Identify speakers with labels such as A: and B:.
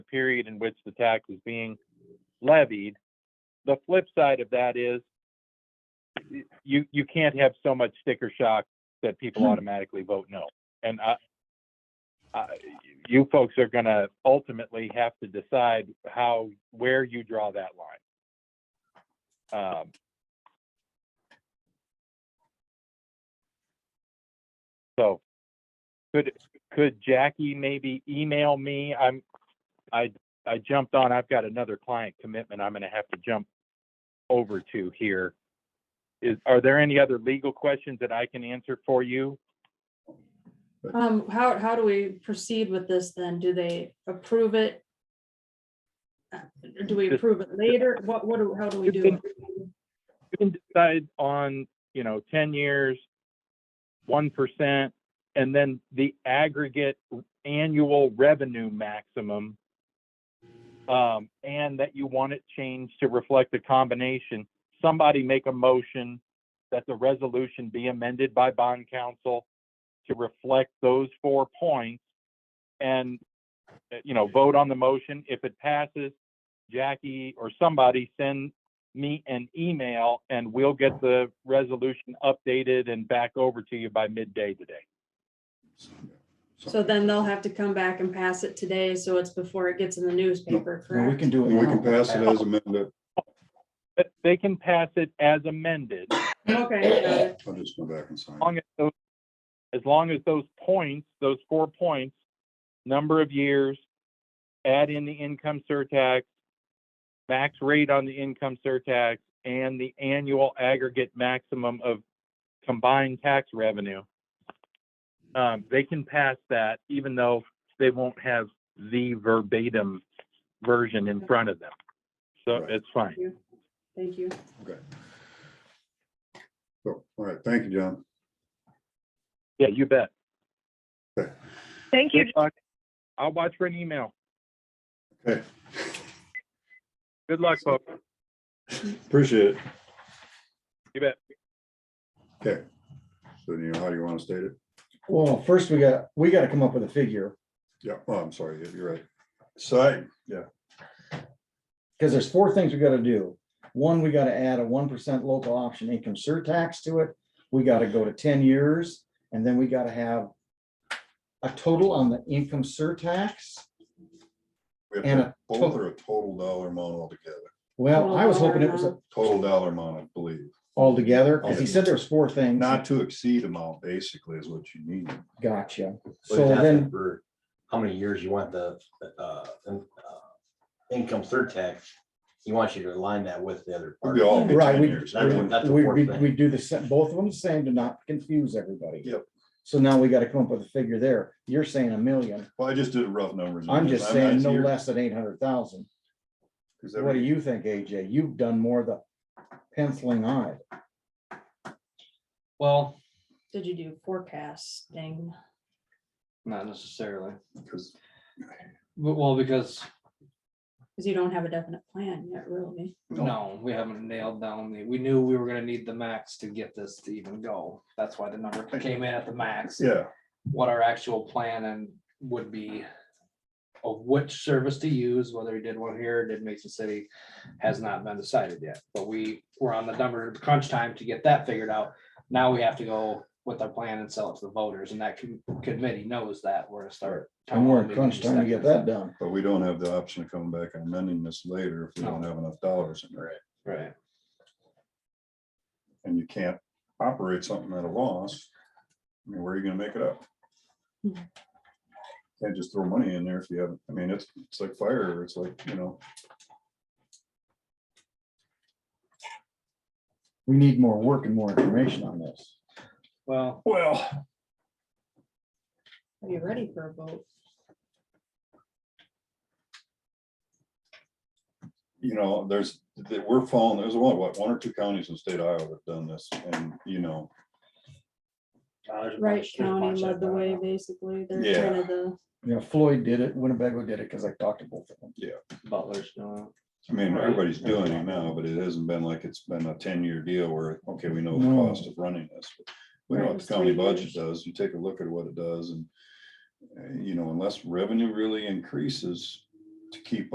A: period in which the tax is being levied. The flip side of that is you, you can't have so much sticker shock that people automatically vote no. And I, I, you folks are gonna ultimately have to decide how, where you draw that line. Um, So, could, could Jackie maybe email me? I'm, I, I jumped on, I've got another client commitment I'm gonna have to jump over to here. Is, are there any other legal questions that I can answer for you?
B: Um, how, how do we proceed with this then? Do they approve it? Uh, Do we
A: Just-
B: approve it later? What, what, do- how do we
A: You
B: do
A: can-
B: it?
A: You can decide on, you know, ten years, one percent, and then the aggregate annual revenue maximum. Um, and that you want it changed to reflect the combination. Somebody make a motion that the resolution be amended by bond council to reflect those four points. And, uh, you know, vote on the motion. If it passes, Jackie or somebody send me an email and we'll get the resolution updated and back over to you by midday today.
B: So then they'll have to come back and pass it today, so it's before it gets in the newspaper,
C: No, we
B: correct?
C: can do it
D: We can
C: now.
D: pass it as amended.
A: But they can pass it as amended, as
B: Okay, got it.
D: I'll just go back and sign.
A: long as those, as long as those points, those four points, number of years, add in the income surtax, max rate on the income surtax, and the annual aggregate maximum of combined tax revenue. Um, they can pass that even though they won't have the verbatim version in front of them. So
D: Right.
A: it's fine.
B: thank you.
D: So, All right, thank you, John.
A: Yeah, you bet.
E: Thank you.
A: Good luck. I'll watch for an email.
D: Okay,
A: Good luck, folks.
D: appreciate it.
A: You bet.
D: Okay. So you know how you want to state it?
C: Well, first we got, we gotta come up with a figure,
D: Yeah, oh, I'm sorry, Yeah, you're right. Sign, yeah,
C: because there's four things we gotta do. One, we gotta add a one percent local option income surtax to it. We gotta go to ten years, and then we gotta have a total on the income surtax.
D: we have
C: And
D: to
C: a
D: both are a total dollar amount altogether,
C: Well, I was hoping it was a-
D: total dollar amount, I believe.
C: altogether, because he said there was four things.
D: Not to exceed amount, basically, is what you need.
C: Gotcha.
F: But
C: So
F: that's
C: then,
F: for How many years you want the, uh, in- uh, income surtax, he wants you to align that with the other.
D: We all get
C: Right,
D: 10
C: we-
D: years.
F: That's what- that's the
C: we,
F: fourth
C: we,
F: thing.
C: we do the, sa- both of them the same to not confuse everybody.
D: Yep.
C: So now we gotta come up with a figure there. You're saying a million.
D: Well, I just did rough numbers.
C: I'm just saying no
D: less.
C: less than eight hundred thousand. What do you think, AJ? You've done more of the penciling on it.
G: Well,
B: Did you do forecasting?
G: not necessarily,
D: Because
G: but well, because
B: Because you don't have a definite plan yet, really.
D: No.
G: no, we haven't nailed down the, we knew we were gonna need the max to get this to even go. That's why the number came in at the max.
D: Yeah,
G: What our actual plan and would be of which service to use, whether he did one here, did Mason City, has not been decided yet. But we were on the number crunch time to get that figured out. Now we have to go with our plan and sell it to the voters and that com- committee knows that we're gonna start.
C: And we're at crunch time to get that done.
D: but we don't have the option of coming back and amending this later if we don't have enough dollars in there.
G: Right.
D: and you can't operate something at a loss, I mean, where are you gonna make it up?
B: Mhm.
D: Can't just throw money in there if you haven't, I mean, it's, it's like fire, it's like, you know,
C: We need more work and more information on this.
G: Well,
D: well,
B: Are you ready for a vote?
D: you know, there's, that we're falling, there's one, what, one or two counties in state Iowa that have done this, and, you know,
F: Uh, there's a bunch-
B: Wright
F: there's a bunch uh,
B: County led
F: that
B: the
F: done
C: uh,
B: way,
F: it.
B: basically. They're
D: Yeah.
B: kind of the,
C: You know, Floyd did it, Winnebago did it, because I talked to both of them.
G: Butler's doing.
D: I mean,
G: Right.
D: everybody's doing it now, but it hasn't been like it's been a ten-year deal where, okay, we know the
C: No.
D: cost of running this. We know
B: Right,
D: what the
B: it's
D: county
B: three
D: budget
B: years.
D: does, you eh, take a look at what it does and, uh, you know, unless revenue really increases, to keep